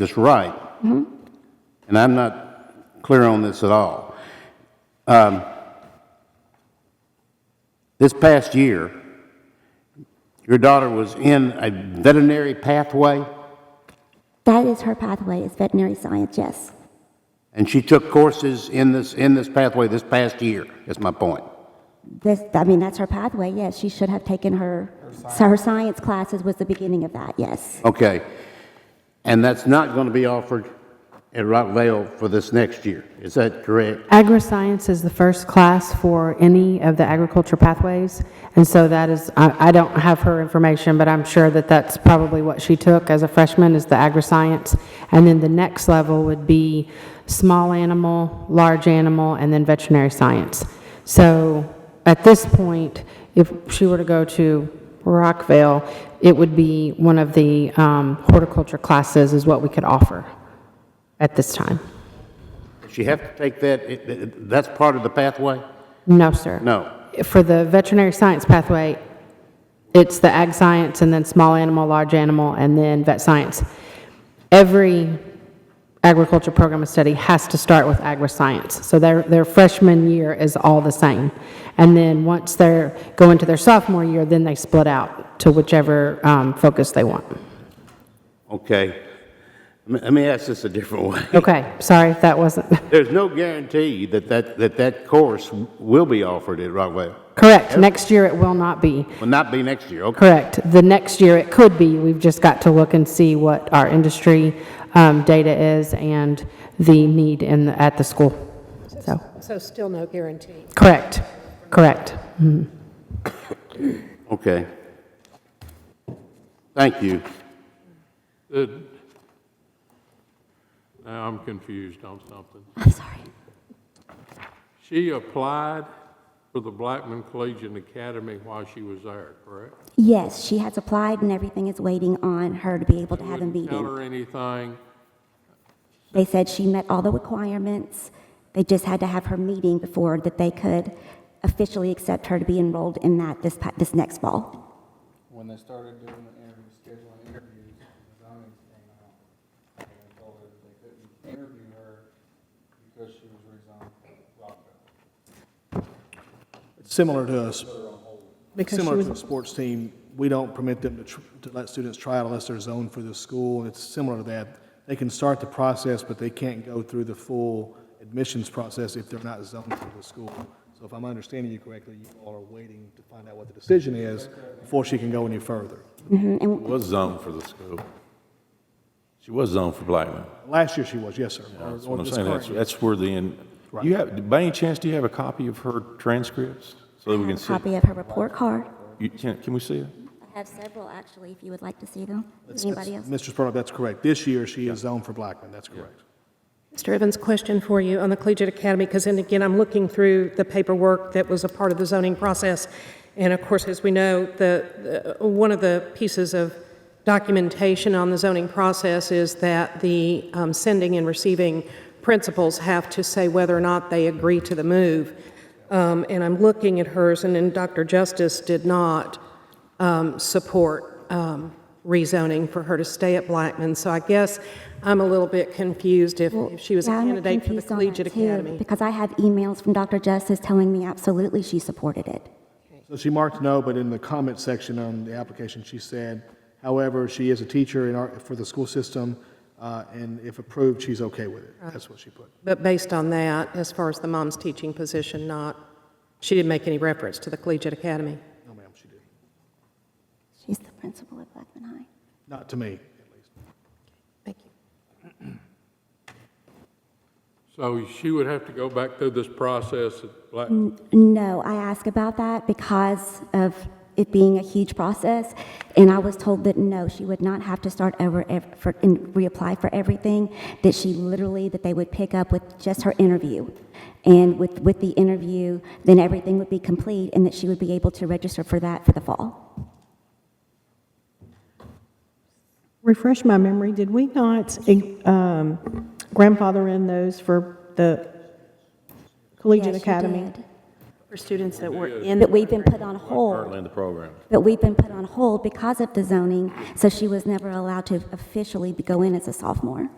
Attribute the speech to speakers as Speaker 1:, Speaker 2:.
Speaker 1: this right, and I'm not clear on this at all. Um, This past year, your daughter was in a veterinary pathway,
Speaker 2: That is her pathway, is veterinary science, yes.
Speaker 1: and she took courses in this, in this pathway this past year, is my point.
Speaker 2: This, I mean, that's her pathway, yes. She should have taken her, so her science classes was the beginning of that, yes.
Speaker 1: Okay. And that's not going to be offered at Rockvale for this next year, is that correct?
Speaker 3: Agri-science is the first class for any of the agriculture pathways, and so that is, I I don't have her information, but I'm sure that that's probably what she took as a freshman, is the agri-science. And then the next level would be small animal, large animal, and then veterinary science. So at this point, if she were to go to Rockville, it would be one of the um, horticulture classes is what we could offer at this time.
Speaker 1: She have to take that, it- it- that's part of the pathway?
Speaker 3: No, sir.
Speaker 1: No.
Speaker 3: For the veterinary science pathway, it's the ag science and then small animal, large animal, and then vet science. Every agriculture program of study has to start with agri-science. So their, their freshman year is all the same. And then once they're, go into their sophomore year, then they split out to whichever um, focus they want.
Speaker 1: Okay. Let me- let me ask this a different way.
Speaker 3: Okay, sorry if that wasn't,
Speaker 1: There's no guarantee that that, that that course will be offered at Rockvale.
Speaker 3: correct. Next year it will not be.
Speaker 1: Will not be next year, okay?
Speaker 3: Correct. The next year, it could be. We've just got to look and see what our industry um, data is and the need in, the- at the school. So,
Speaker 4: So still no guarantee.
Speaker 3: correct, correct.
Speaker 1: Okay. Thank you.
Speaker 5: It- Now, I'm confused on something.
Speaker 2: I'm sorry.
Speaker 5: She applied for the Blackman Collegian Academy while she was there, correct?
Speaker 2: Yes, she has applied and everything is waiting on her to be able to have a
Speaker 5: Didn't Tell
Speaker 2: meeting.
Speaker 5: her anything.
Speaker 2: They said she met all the requirements. They just had to have her meeting before that they could officially accept her to be enrolled in that this, pa- this next fall.
Speaker 6: when they started doing the interview, scheduling interviews, the zoning came out. And they told her that they couldn't interview her because she was rezoned for Rockville.
Speaker 7: Similar to us,
Speaker 4: Because she
Speaker 7: similar to a
Speaker 4: was,
Speaker 7: sports team, we don't permit them to, tr- to let students try out unless they're zoned for the school. It's similar to that. They can start the process, but they can't go through the full admissions process if they're not zoned for the school. So if I'm understanding you correctly, you all are waiting to find out what the decision is before she can go any further.
Speaker 8: She was zoned for the school. She was zoned for Blackman.
Speaker 7: Last year she was, yes, sir. Or-
Speaker 8: That's
Speaker 7: or
Speaker 8: what I'm
Speaker 7: this
Speaker 8: saying, that's,
Speaker 7: current year.
Speaker 8: that's where the, end- you have, by any chance, do you have a copy of her transcripts? So that we
Speaker 2: I
Speaker 8: can
Speaker 2: have a
Speaker 8: see?
Speaker 2: copy of her report card.
Speaker 8: You, can, can we see it?
Speaker 2: I have several, actually, if you would like to see them.
Speaker 7: That's- that's-
Speaker 2: Anybody else?
Speaker 7: Mr. Spurlock, that's correct. This year she is zoned for Blackman, that's correct.
Speaker 4: Mr. Evans, question for you on the Collegiate Academy, because then again, I'm looking through the paperwork that was a part of the zoning process. And of course, as we know, the, the- one of the pieces of documentation on the zoning process is that the um, sending and receiving principals have to say whether or not they agree to the move. Um, And I'm looking at hers, and then Dr. Justice did not um, support um, rezoning for her to stay at Blackman. So I guess I'm a little bit confused if if she was a
Speaker 2: Yeah, I'm
Speaker 4: candidate
Speaker 2: confused
Speaker 4: for the
Speaker 2: on that
Speaker 4: Collegiate
Speaker 2: too,
Speaker 4: Academy.
Speaker 2: Because I have emails from Dr. Justice telling me absolutely she supported it.
Speaker 7: So she marked no, but in the comment section on the application, she said, however, she is a teacher in our, for the school system, uh, and if approved, she's okay with it. That's what she put.
Speaker 4: But based on that, as far as the mom's teaching position, not, she didn't make any reference to the Collegiate Academy.
Speaker 7: No, ma'am, she didn't.
Speaker 2: She's the principal of Blackman High.
Speaker 7: Not to me, at least.
Speaker 4: Thank you.
Speaker 5: So she would have to go back through this process at Blackman.
Speaker 2: No, I asked about that because of it being a huge process, and I was told that no, she would not have to start over ev- for, and reapply for everything, that she literally, that they would pick up with just her interview. And with, with the interview, then everything would be complete, and that she would be able to register for that for the fall.
Speaker 9: Refresh my memory, did we not um, grandfather in those for the Collegiate
Speaker 2: Yes, you
Speaker 9: Academy?
Speaker 2: did.
Speaker 10: For students that were in.
Speaker 2: that we've been put on hold.
Speaker 8: Currently in the program.
Speaker 2: But we've been put on hold because of the zoning, so she was never allowed to officially be- go in as a sophomore.